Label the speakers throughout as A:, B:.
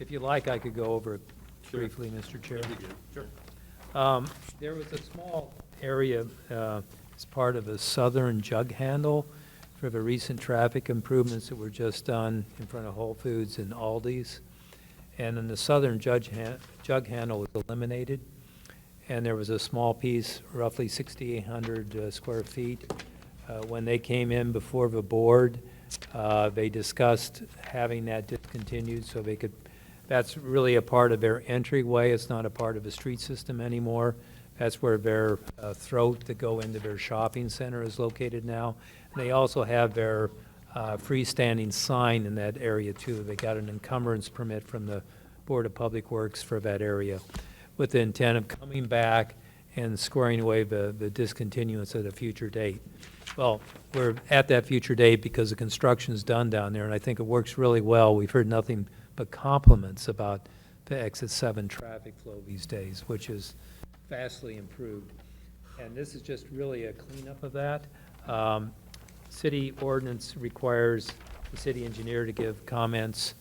A: If you like, I could go over it
B: Sure.
A: briefly, Mr. Chair.
B: That'd be good. Sure.
A: Um, There was a small area uh, as part of a southern jug handle for the recent traffic improvements that were just done in front of Whole Foods and Aldi's. And then the southern judge han- jug handle was eliminated, and there was a small piece, roughly 6,800 uh, square feet. Uh, When they came in before the board, uh, they discussed having that discontinued so they could that's really a part of their entryway, it's not a part of the street system anymore. That's where their uh, throat to go into their shopping center is located now. And they also have their uh, freestanding sign in that area too. They got an encumbrance permit from the Board of Public Works for that area with the intent of coming back and squaring away the, the discontinuance at a future date. Well, we're at that future date because the construction's done down there, and I think it works really well. We've heard nothing but compliments about the exit seven traffic flow these days, which is vastly improved. And this is just really a cleanup of that. Um, City ordinance requires the city engineer to give comments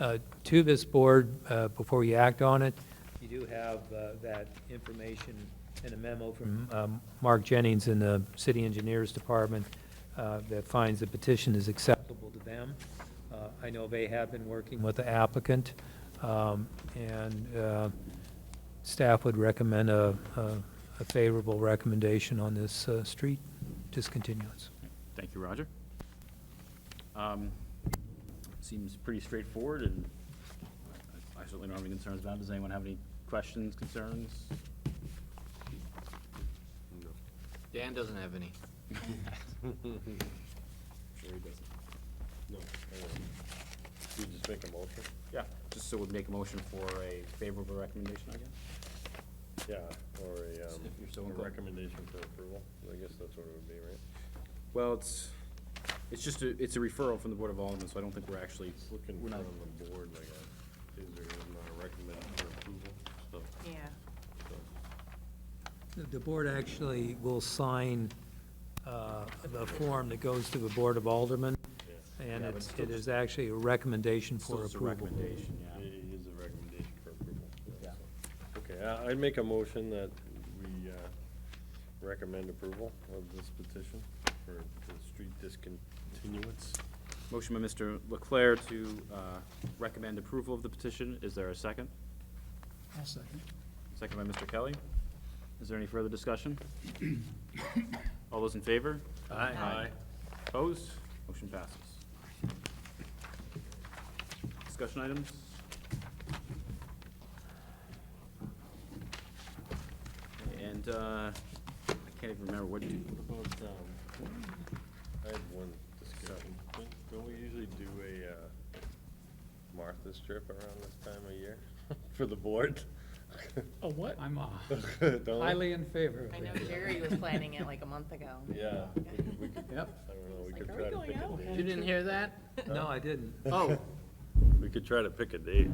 A: uh, to this board uh, before you act on it. You do have uh, that information in a memo from um, Mark Jennings in the city engineers department uh, that finds the petition is acceptable to them. Uh, I know they have been working with the applicant, um, and uh, staff would recommend a a- a favorable recommendation on this uh, street discontinuance.
B: Thank you, Roger. Um, Seems pretty straightforward, and I- I certainly don't have any concerns about it. Does anyone have any questions, concerns?
C: Dan doesn't have any.
D: No. You just make a motion?
B: Yeah. Just so we'd make a motion for a favorable recommendation, I guess?
D: Yeah, or a, um,
B: If you're so
D: a
B: inclined.
D: recommendation for approval, I guess that's what it would be, right?
B: Well, it's, it's just, a it's a referral from the Board of Alderman, so I don't think we're actually,
D: It's looking
B: we're
D: for
B: not,
D: on the board, like, uh, is there even a recommend for approval stuff?
E: Yeah,
D: so.
A: The board actually will sign uh, the form that goes to the Board of Aldermen,
B: Yeah,
A: and
B: but
A: it's-
B: still-
A: it is actually a recommendation for
B: still it's a
A: approval.
B: recommendation, yeah.
D: It is a recommendation for approval.
B: Yeah.
D: so. Okay, I, I'd make a motion that we, uh, recommend approval of this petition for the street discontinuance.
B: Motion by Mr. Leclerc to uh, recommend approval of the petition. Is there a second?
F: I'll second.
B: Second by Mr. Kelly. Is there any further discussion? All those in favor?
E: Aye.
B: Opposed? Motion passes. Discussion items? And uh, I can't even remember what, do-
D: What about, um, I had one discussion. Don't- Don't we usually do a uh, Martha's trip around this time of year for the board?
F: A
D: Oh.
F: what? I'm uh,
D: Don't we?
F: highly in favor of
E: I
F: it.
E: know Jerry was planning it like a month ago.
D: Yeah. we could- we could-
F: Yep.
D: I don't know, we
E: Like,
D: could
E: are we
D: try to
E: going
D: pick a
E: out?
D: date.
C: You didn't hear that?
A: No, I didn't.
C: Oh,
D: We could try to pick a date.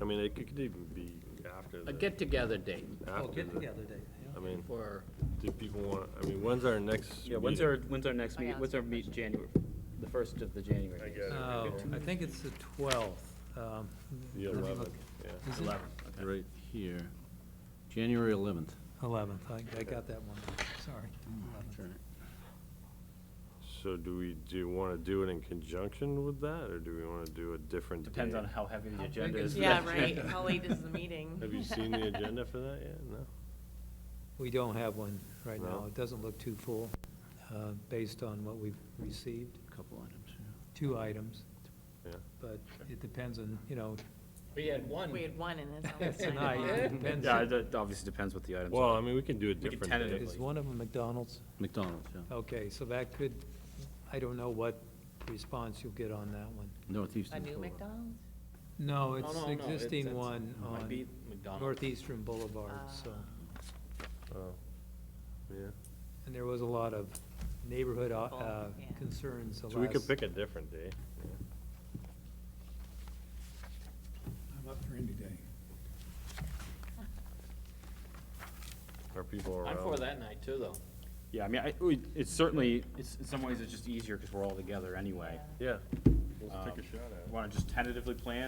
D: I mean, it could even be after the.
C: a get-together date
A: Oh,
D: after the-
A: get-together date. yeah.
D: I mean,
C: for,
D: do people want, I mean, when's our next?
B: yeah, when's our,
D: meeting?
B: when's our next
E: I
B: meet,
E: asked
B: when's our
E: that
B: meet,
E: question.
B: January, the first of the January?
D: I
B: meetings?
D: guess.
A: Oh, I think it's the 12th. um,
D: The
A: let me look.
D: 11th, yeah.
A: Is it?
B: Eleven, okay.
G: Right here, January 11th.
A: 11th, I- I got that one, sorry. 11th.
D: So do we, do you want to do it in conjunction with that, or do we want to do a different date?
B: Depends on how heavy the
A: How big
B: agenda
A: is
B: is.
A: the
E: Yeah, right, how late is the meeting?
D: Have you seen the agenda for that yet? No?
A: We don't have one right now.
D: No.
A: It doesn't look too full, uh, based on what we've received,
G: Couple items, yeah.
A: two items,
D: Yeah.
A: but it depends on, you know,
C: we had one.
E: We had one and it's almost nine
A: tonight, it
E: o'clock.
A: depends.
B: Yeah, it obviously depends what the items
D: Well,
B: are.
D: I mean, we can do a
B: can
D: different
B: tentatively.
D: day.
A: Is one of them McDonald's?
G: McDonald's,
E: Oh.
G: yeah.
A: Okay, so that could, I don't know what response you'll get on that one.
G: Northeastern.
E: A new
G: Florida.
E: McDonald's?
A: No, it's
B: no, no, it's-
A: existing
B: it's-
A: one
B: might be
A: on
B: McDonald's.
A: Northeastern Boulevard, so.
D: Oh, Yeah,
A: And there was a lot of neighborhood, uh,
E: Oh,
A: uh,
E: yeah.
A: concerns the
D: so we could
A: last-
D: pick a different day.
F: I'm up for any day.
D: Are people around?
C: I'm for that night too, though.
B: Yeah, I mean, I, we- it's certainly, it's, in some ways, it's just easier because we're all together anyway.
C: Um,
D: Yeah, let's take a shot at it.
B: Want to just tentatively plan